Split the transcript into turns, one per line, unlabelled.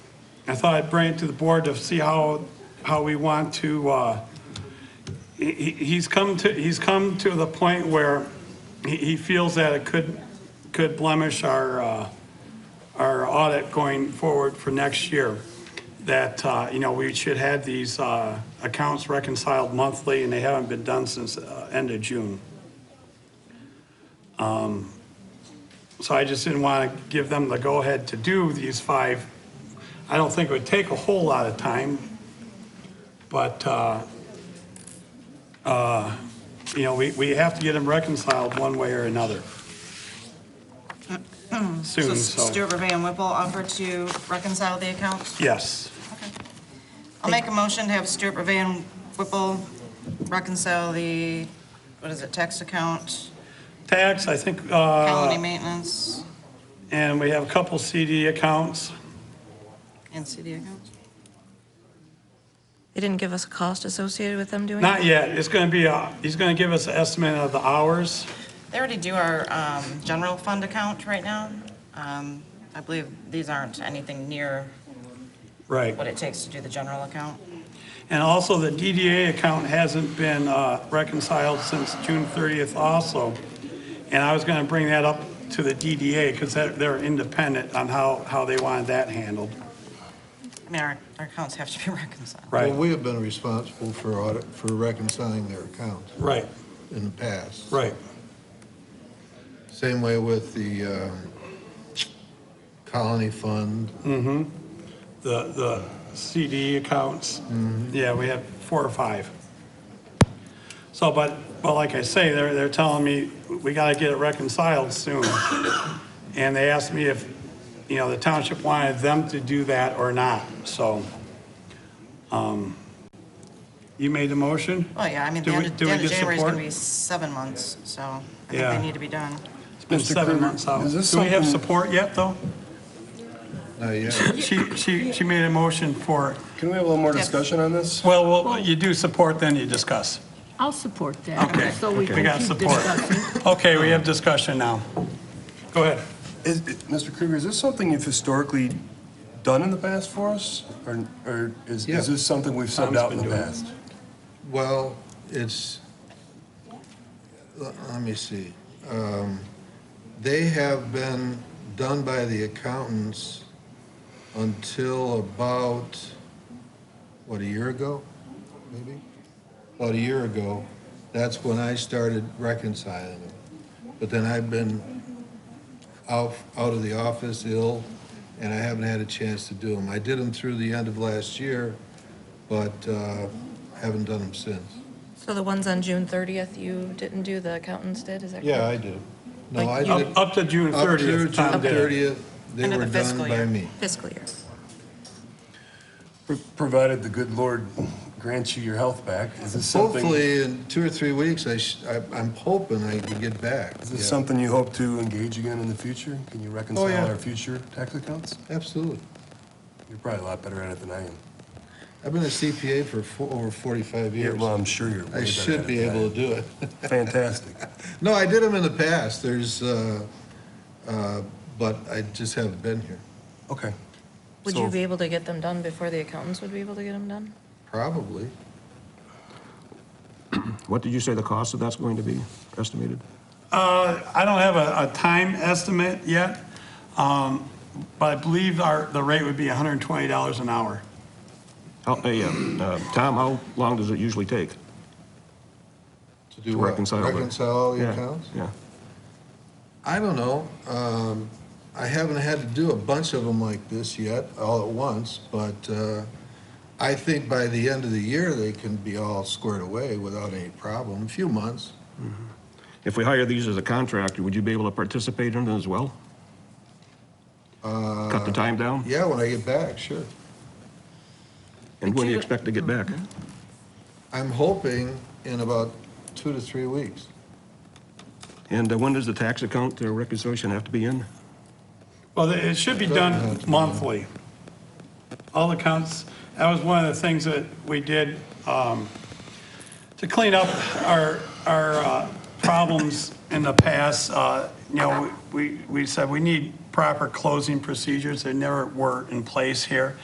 I thought I'd bring it to the board to see how, how we want to, uh, he, he- he's come to, he's come to the point where he, he feels that it could, could blemish our, uh, our audit going forward for next year. That, uh, you know, we should have these, uh, accounts reconciled monthly and they haven't been done since, uh, end of June. So I just didn't want to give them the go-ahead to do these five. I don't think it would take a whole lot of time, but, uh, uh, you know, we, we have to get them reconciled one way or another.
So
Soon, so,
Stuart Revere and Whipple offer to reconcile the accounts?
yes.
I'll make a motion to have Stuart Revere and Whipple reconcile the, what is it, tax account,
Tax, I think, uh,
county maintenance,
and we have a couple CD accounts.
and CD accounts?
They didn't give us a cost associated with them doing
Not
it?
yet. It's going to be, uh, he's going to give us an estimate of the hours.
They already do our um, general fund account right now. Um, I believe these aren't anything near
Right.
what it takes to do the general account.
And also, the DDA account hasn't been uh, reconciled since June 30th also. And I was going to bring that up to the DDA because they're independent on how, how they wanted that handled.
I mean, our our accounts have to be reconciled.
Right,
Well, we have been responsible for audit, for reconciling their accounts
right,
in the past.
right.
Same way with the um, colony fund.
Mm. The, the CD accounts,
Mm-hmm.
yeah, we have four or five. So, but, but like I say, they're, they're telling me, we got to get it reconciled soon. And they asked me if, you know, the township wanted them to do that or not, so. um, You made the motion?
Well, yeah, I mean,
Do
the
we-
end of
do
the
we
end of
get
January is going
support?
to be seven months, so I think
Yeah.
they need to be done.
It's been
Mr.
seven
Kramer,
months out.
is this
Do we have
something-
support yet, though?
Not yet.
She, she, she made a motion for,
Can we have a little more
Yes.
discussion on this?
well, well, you do support, then you discuss.
I'll support that.
Okay.
So we
We
can
got
keep
support.
discussing.
Okay, we have discussion now. Go ahead.
Is, is- Mr. Krueger, is this something you've historically done in the past for us? Or, or is,
Yeah.
is this something we've subbed
Tom's
out in
been
the
doing it.
past?
Well, it's, let let me see. Um, They have been done by the accountants until about, what, a year ago, maybe? About a year ago. That's when I started reconciling them. But then I've been out, out of the office ill, and I haven't had a chance to do them. I did them through the end of last year, but uh, haven't done them since.
So the ones on June 30th, you didn't do, the accountants did, is that correct?
Yeah, I do. No, I
Like
did.
Up up to June
Up through
30th, Tom
June
did. it.
30th, they
End of
were
the
done
fiscal
by
year.
me.
Fiscal year.
Pro- Provided the good Lord grants you your health back, is this something?
Hopefully, in two or three weeks, I sh- I, I'm hoping I can get back.
Is this
Yeah,
something you hope to engage again in the future? Can you
yeah.
reconcile our future tax accounts?
Absolutely.
You're probably a lot better at it than I am.
I've been a CPA for fo- over 45
Yeah,
years.
well, I'm sure you're way
I
better at
should
it
be
than I
able
am.
to do it.
Fantastic.
No, I did them in the past, there's, uh, uh, but I just haven't been here.
Okay.
Would
So-
you be able to get them done before the accountants would be able to get them done?
Probably.
What did you say the cost of that's going to be estimated?
Uh, I don't have a, a time estimate yet, um, but I believe our, the rate would be $120 an hour.
How, hey, uh, uh, Tom, how long does it usually take?
To do
To
what?
reconcile the-
Reconcile all the
Yeah,
accounts?
Yeah.
I don't know. Um, I haven't had to do a bunch of them like this yet, all at once, but uh, I think by the end of the year, they can be all squared away without any problem. A few months.
If we hire these as a contractor, would you be able to participate in them as well? Cut the time down?
Uh, Yeah, when I get back, sure.
And when do you
you-
expect to get back?
I'm hoping in about two to three weeks.
And uh, when does the tax account uh, reconciliation have to be in?
Well, it should be done monthly. All accounts, that was one of the things that we did um, to clean up our, our uh, problems in the past. Uh, You know, we, we we said we need proper closing procedures. They never were in place here.